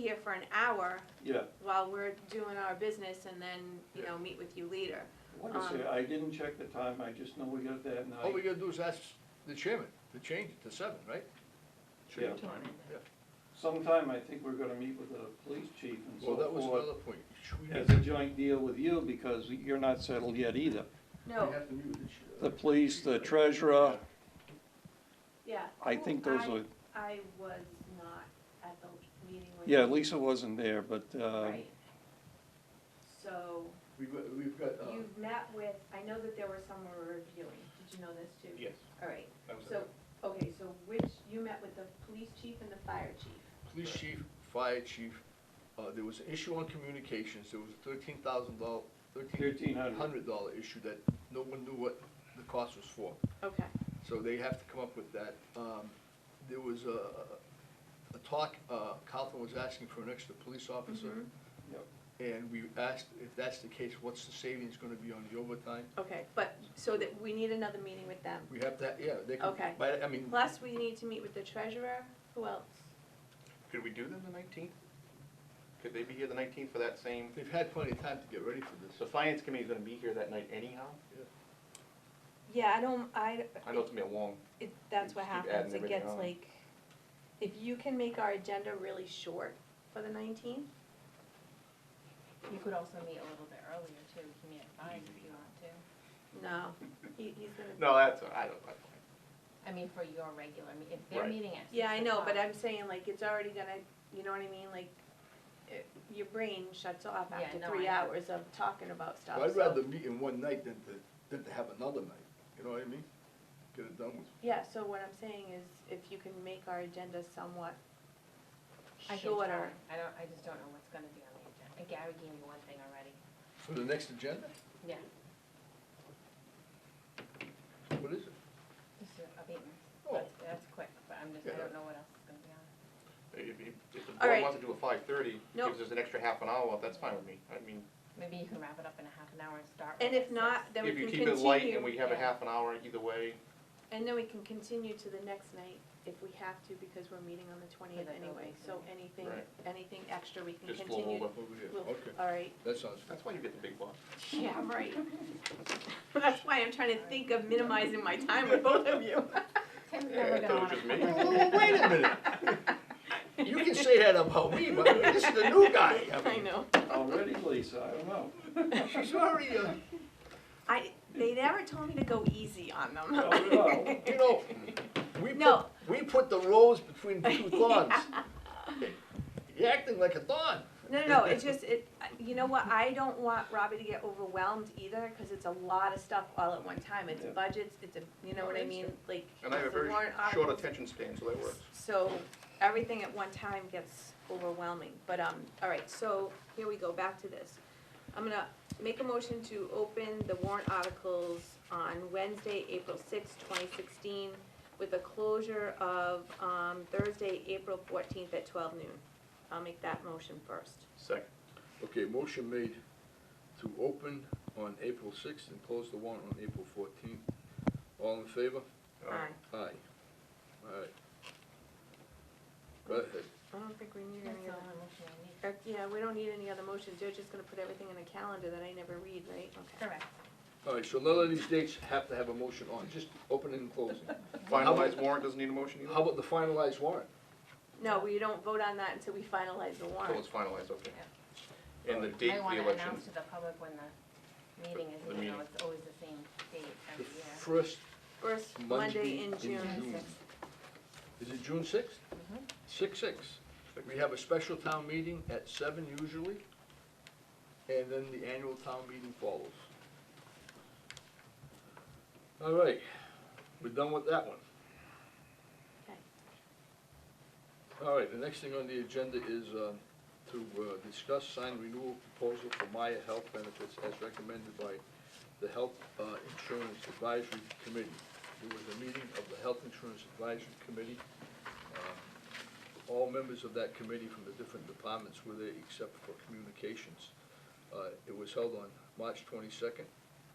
here for an hour Yeah, while we're doing our business and then, you know, meet with you later. like I say, I didn't check the time, I just know we got that night. All Oh, we gotta do is ask the chairman to change it to seven, right? Yeah. Sometime, I think we're gonna meet with the police chief and Well, so that was forth, another point. Should we- as a joint deal with you, because you're not settled yet either. No, The police, the treasurer, yeah. I think those are, I, I was not at the meeting with. yeah, you. Lisa wasn't there, but, uh, Right. So We've, got- we've got, uh, you've met with, I know that there were some we were reviewing. Did you know this too? Yes, All right, that was so, it. okay, so which, you met with the police chief and the fire chief? police chief, fire chief, uh, there was an issue on communications, there was a thirteen thousand dollar, thirteen hundred. hundred dollar issue that no one knew what the cost was for. Okay. So they have to come up with that. Um, there was a, a talk, uh, Carlton was asking for an extra police officer. Mhm. Yep. And we asked, if that's the case, what's the savings gonna be on the overtime? Okay, but, so that, we need another meeting with them. We have that, yeah, they can, Okay. but, I mean, Plus, we need to meet with the treasurer, who else? Could we do them the nineteenth? Could they be here the nineteenth for that same, they've had plenty of time to get ready for the this. finance committee's gonna be here that night anyhow? Yeah, I don't, I, I know it's gonna be a long, it, that's You what just keep happens, adding it everything gets on. like, if you can make our agenda really short for the nineteenth, You could also meet a little bit earlier too, you can meet at five if you want to. no, he, he's gonna. no, that's, I don't, I I mean, for your regular, meet- if Right. they're meeting at six Yeah, I know, but o'clock, I'm saying like, it's already gonna, you know what I mean, like, it, your brain shuts off Yeah, after no, three I know. hours of talking about stuff, Well, I'd Oh, so- rather meet in one night than to, than to have another night, you know what I mean? Get it done with. Yeah, so what I'm saying is, if you can make our agenda somewhat I can shorter. try. I don't, I just don't know what's gonna be on the agenda. And Gary gave me one thing already. For the next agenda, Yeah. what is it? This is abatements. Oh. That's, that's quick, but I'm just, I Yeah. don't know what else is gonna be on. If, if- if the All right. board wants to do a five thirty, Nope. gives us an extra half an hour, that's fine with me. I mean, Maybe you can wrap it up in a half an hour and start. And if with six. not, then we if can you continue. keep it light and we have a yeah. half an hour either way, And then we can continue to the next night if we have to, because we're meeting on the twentieth the anyway, building so thing. anything, Right. anything extra we can just continue. flow over. Over here, We'll- okay, All right, that sounds good. That's why you get the big bucks. yeah, right. That's why I'm trying to think of minimizing my time with both of you. Tim's Yeah, never I thought it gonna was wanna- just Well, Wait a minute. You can say that about me, but this is the new guy. I know, Already, Lisa, I don't know. She's already, uh, I, they never told me to go easy on them. No, no. Oh, you know, we put, No. we put the rose between the two thorns. You're acting like a thorn. No, no, no, it's just, it, you know what, I don't want Robbie to get overwhelmed either, cause it's a lot of stuff all at one time, it's Yeah. budgets, it's a, you know what I mean, like, And I have a it's the very warrant short articles. attention span, so that works. So, everything at one time gets overwhelming, but, um, all right, so, here we go, back to this. I'm gonna make a motion to open the warrant articles on Wednesday, April sixth, twenty sixteen, with a closure of, um, Thursday, April fourteenth at twelve noon. I'll make that motion first. Second. Okay, motion made to open on April sixth and close the warrant on April fourteenth. All in favor? Oh. Aye. Aye. All right. Go ahead. I don't think we need That's any the other, only motion I need. uh, yeah, we don't need any other motions, they're just gonna put everything in a calendar that I never read, right? Okay. Correct. All right, so none of these dates have to have a motion on, just opening and closing. Finalized warrant doesn't need a motion either? How about the finalized warrant? No, we don't vote on that until we finalize the So Oh, it's warrant. finalized, okay. Yeah. And the You date might of the wanna election, announce to the public when the meeting is, The even meeting. though it's always the same date The every year. first First Monday Monday in in June. June. Is it June sixth? Six, six. We have a special town meeting at seven usually, and then the annual town meeting follows. All right, we're done with that one. Okay. All right, the next thing on the agenda is uh, to uh, discuss signed renewal proposal for Maya Health Benefits as recommended by the Health uh, Insurance Advisory Committee. There was a meeting of the Health Insurance Advisory Committee. Um, All members of that committee from the different departments were there except for communications. Uh, It was held on March twenty-second.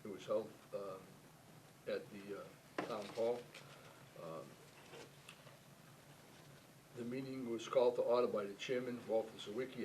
It was held um, Uh, at the uh, town hall. Um, The meeting was called to order by the chairman, Walter Zawicki,